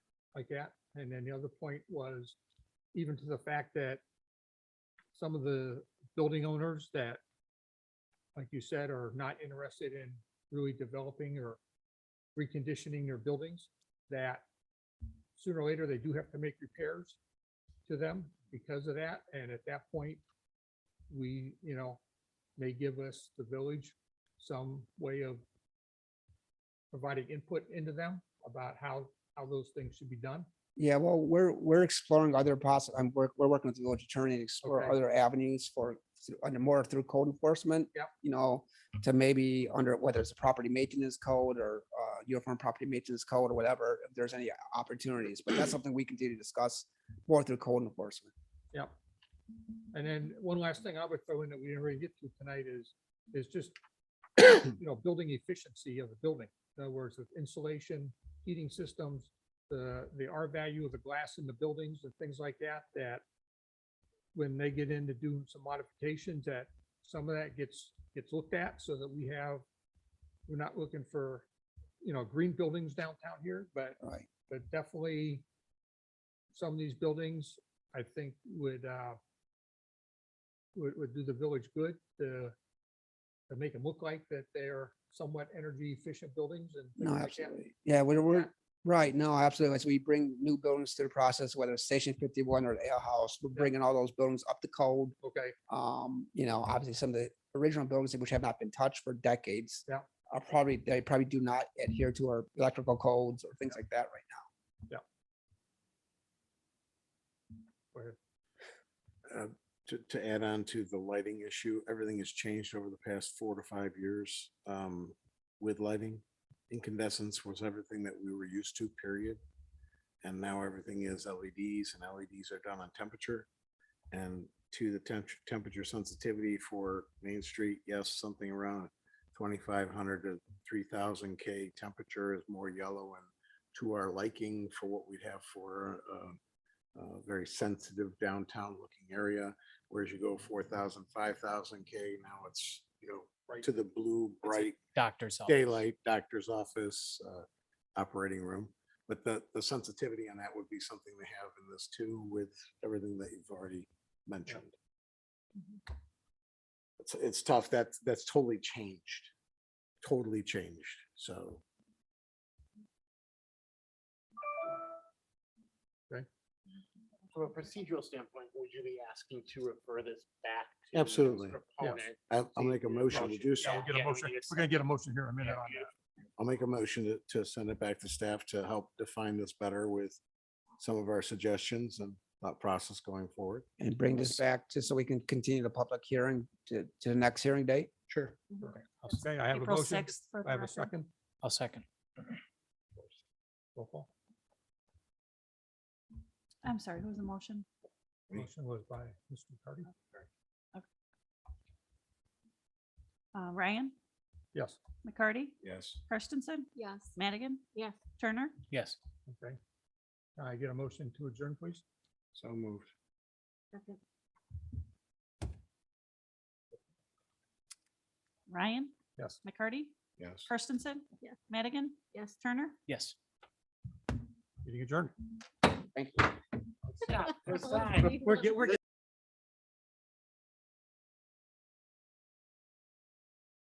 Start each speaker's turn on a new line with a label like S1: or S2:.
S1: like that. And then the other point was even to the fact that some of the building owners that, like you said, are not interested in really developing or reconditioning their buildings, that sooner or later, they do have to make repairs to them because of that. And at that point, we, you know, may give us, the village, some way of providing input into them about how, how those things should be done.
S2: Yeah, well, we're, we're exploring other poss, I'm, we're, we're working with the village attorney to explore
S1: Okay.
S2: other avenues for, through- under more through code enforcement.
S1: Yep.
S2: You know, to maybe under, whether it's a property maintenance code or, uh, uniform property maintenance code or whatever, if there's any opportunities, but that's something we continue to discuss more through code enforcement.
S1: Yep. And then one last thing I would throw in that we didn't really get to tonight is, is just, you know, building efficiency of the building. In other words, with insulation, heating systems, the, the R value of the glass in the buildings and things like that, that when they get in to do some modifications, that some of that gets, gets looked at so that we have, we're not looking for, you know, green buildings downtown here, but
S2: Right.
S1: but definitely some of these buildings, I think would, uh, would, would do the village good to, to make them look like that they're somewhat energy efficient buildings and.
S2: No,
S1: things like that.
S2: absolutely. Yeah, we're, we're,
S1: Yeah.
S2: right, no, absolutely. As we bring new buildings to the process, whether it's Station fifty-one or the Ale House, we're bringing all those buildings up to code.
S1: Okay,
S2: um, you
S3: Mm.
S2: know, obviously some of the original buildings which have not been touched for decades.
S1: Yeah.
S2: Are probably, they probably do not adhere to our electrical codes or things like that right
S1: go ahead.
S4: to, to add on to the lighting issue, everything has changed over the past four to five years um, with lighting. Incandescence was everything that we were used to, period. And now everything is LEDs and LEDs are done on temperature. And to the temperature, temperature sensitivity for Main Street, yes, something around twenty-five hundred to three thousand K temperature is more yellow and to our liking for what we'd have for uh, uh, very sensitive downtown looking area. Whereas you go 4,000, 5,000 K, now it's, you know, to the blue, bright
S3: doctor's office.
S4: daylight, doctor's office, uh, operating room. But the, the sensitivity on that would be something they have in this too with everything that you've already mentioned. It's, it's tough. That's, that's totally changed, totally changed. So
S5: From a procedural standpoint, would you be asking to refer this back? to its
S4: Absolutely. Yes.
S5: proponent?
S4: I'll, I'll make a motion to do so.
S1: Yeah, we'll get a
S5: Yeah, we
S1: motion.
S5: need a
S1: We're gonna get a motion here in a minute
S5: Yeah,
S1: on that.
S4: I'll make a motion to, to send it back to staff to help define this better with some of our suggestions and thought process going forward.
S2: now. And bring this back just so we can continue the public hearing to, to the next hearing date.
S1: Sure. Okay, I have a
S6: April
S1: motion.
S6: 6th for
S1: I have a
S6: Patrick.
S1: second.
S3: I'll second.
S1: Roll call.
S6: I'm sorry, who was the motion?
S1: Motion was by Mr. Cardy.
S6: Uh, Ryan,
S1: Yes,
S6: McCarty,
S4: Yes.
S6: Kirstensen,
S7: Yes.
S6: Madigan,
S7: Yes.
S6: Turner,
S3: Yes.
S1: okay. Can I get a motion to adjourn, please.
S4: So moved.
S6: Ryan,
S1: Yes.
S6: McCarty,
S4: Yes.
S6: Kirstensen,
S7: Yes.
S6: Madigan,
S7: Yes.
S6: Turner.
S3: Yes.
S1: Meeting adjourned.
S2: Thank you.
S5: Stop,
S7: Well,
S5: stop.
S7: we-
S1: We're, get- we're